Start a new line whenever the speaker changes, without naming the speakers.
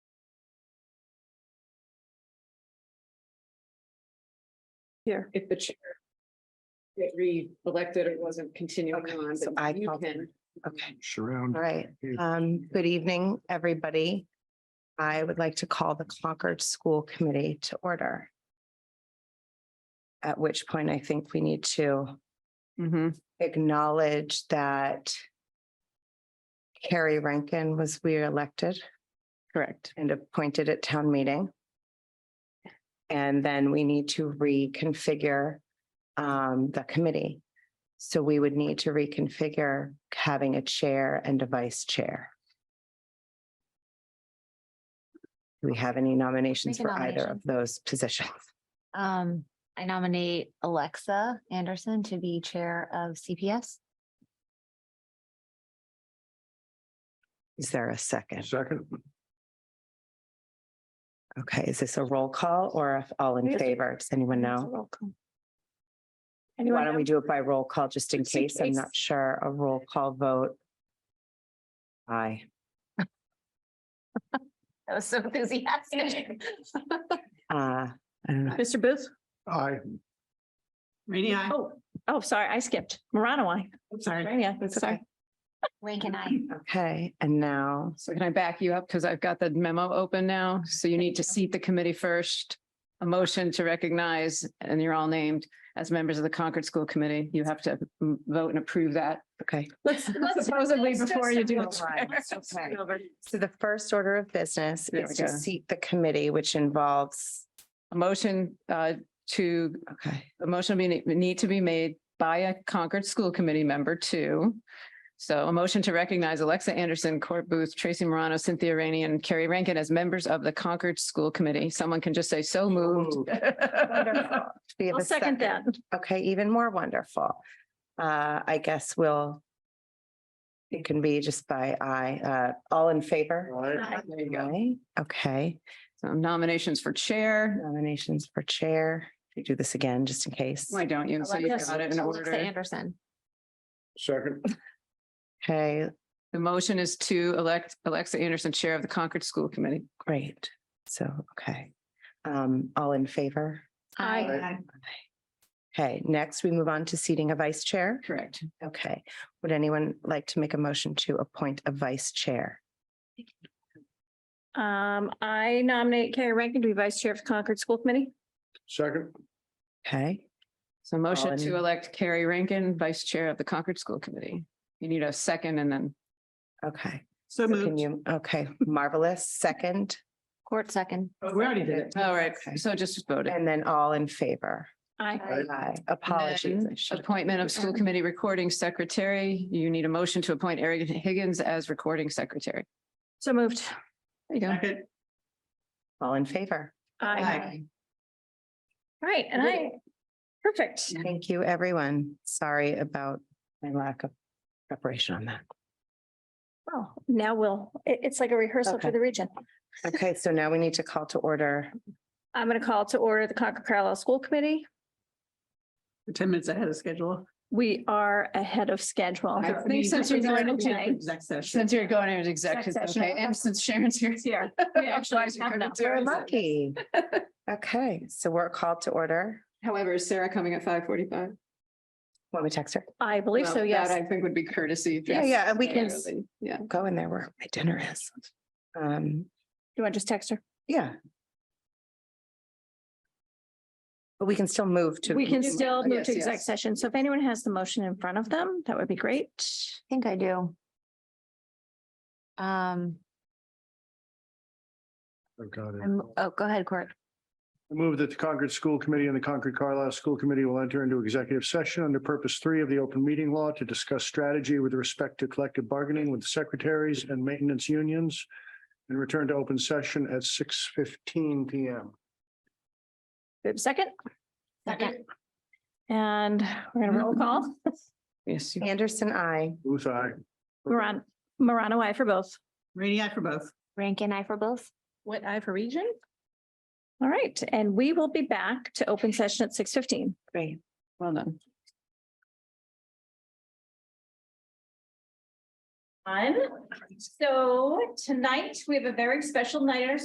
Here.
if the chair get re-elected or wasn't continuing
Okay,
on,
so I
but you
called
can.
Okay,
Surround.
all right.
Uh,
Um, good evening, everybody. I would like to call the Concord School Committee to order. At which point I think we need to acknowledge that Carrie Rankin was re-elected
Correct.
and appointed at town meeting. And then we need to reconfigure um, the committee. So we would need to reconfigure having a chair and a vice chair. Do we have any nominations
Make a
for either of
nomination.
those positions?
Um, I nominate Alexa Anderson to be chair of CPS.
Is there a second?
Second.
Okay, is this a roll call or if all in
Yes.
favor? Does anyone know? Why
Anyone?
don't we do it by roll call, just in
Just in
case? I'm not
case.
sure. A roll call vote. Aye.
That was so enthusiastic.
Uh, I don't know.
Mr. Booth?
I,
Rainy eye.
Oh, oh, sorry, I skipped. Morano, I.
Sorry.
Yeah,
That's
sorry.
okay.
Rank and I.
Okay, and now,
So can I back you up? Because I've got the memo open now. So you need to seat the committee first. A motion to recognize, and you're all named as members of the Concord School Committee. You have to mm, vote and approve that.
okay.
let's-
Supposedly
let's do
before you do.
some
the
lines,
chair.
okay. So the first order of business
There
is
we
to
go.
seat the committee, which involves,
A motion uh, to
okay,
a motion will be, need to be made by a Concord School Committee member too. So a motion to recognize Alexa Anderson, Court Booth, Tracy Morano, Cynthia Rainey, and Carrie Rankin as members of the Concord School Committee. Someone can just say, so moved.
wonderful. We have
I'll
a
second that.
Okay, even more wonderful. Uh, I guess we'll, it can be just by eye, uh, all in favor?
I,
There you go.
Aye. Okay,
So Nominations for chair.
nominations for chair. We do this again, just in case.
Why don't you? So you
Alexa-
got it in
Alexa
order.
Anderson.
second.
Okay,
The motion is to elect Alexa Anderson, Chair of the Concord School Committee.
great. So, okay. Um, all in favor?
Aye.
Okay, next we move on to seating a vice chair.
Correct.
Okay, would anyone like to make a motion to appoint a vice chair?
Um, I nominate Carrie Rankin to be vice chair of the Concord School Committee.
Second.
Okay,
So motion
in-
to elect Carrie Rankin, Vice Chair of the Concord School Committee. You need a second and then
okay.
So
Can
moved.
you, okay, marvelous, second,
Court second.
Oh, We already did it.
All right,
Okay.
so just vote it.
and then all in favor.
I,
Aye.
Aye. Apologies. I should-
Appointment of school committee recording secretary. You need a motion to appoint Eric Higgins as recording secretary.
so moved.
There you go.
Second.
All in favor.
I, all right, and I, perfect.
Thank you, everyone. Sorry about my lack of preparation on that.
Well, now we'll, it- it's like a rehearsal
Okay.
for the region.
Okay, so now we need to call to order.
I'm going to call to order the Concord Carlisle School Committee.
We're Ten minutes ahead of schedule.
We are ahead of schedule.
I think since you're going into-
Exec session.
Since you're going into executive,
Exec session.
okay, and since Sharon's here.
Yeah. We actually
Otherwise you
have
couldn't
enough.
do
We're
it.
lucky. Okay, so we're called to order.
However, is Sarah coming at five forty-five?
Want me to text her?
I believe so, yes.
I think would be courtesy.
Yeah, yeah, and we can-
Yeah.
Go in there where my dinner is. Um,
You want to just text her?
Yeah. But we can still move to.
We can
move-
still move
yes,
to exec
yes.
session. So if anyone has the motion in front of them, that would be great.
I think I do. Um,
I got it.
I'm- oh, go ahead, Court.
I Move that the Concord School Committee and the Concord Carlisle School Committee will enter into executive session under purpose three of the open meeting law to discuss strategy with respect to collective bargaining with secretaries and maintenance unions and return to open session at six fifteen P M.
We have a second,
Second.
and we're gonna roll call.
Yes. you-
Anderson, I.
Booth, I.
Moran, Morano, I for both.
Rainy eye for both.
Rank and I for both.
What I for region? All right, and we will be back to open session at six fifteen.
Great.
Well done.
So tonight, we have a very special night at our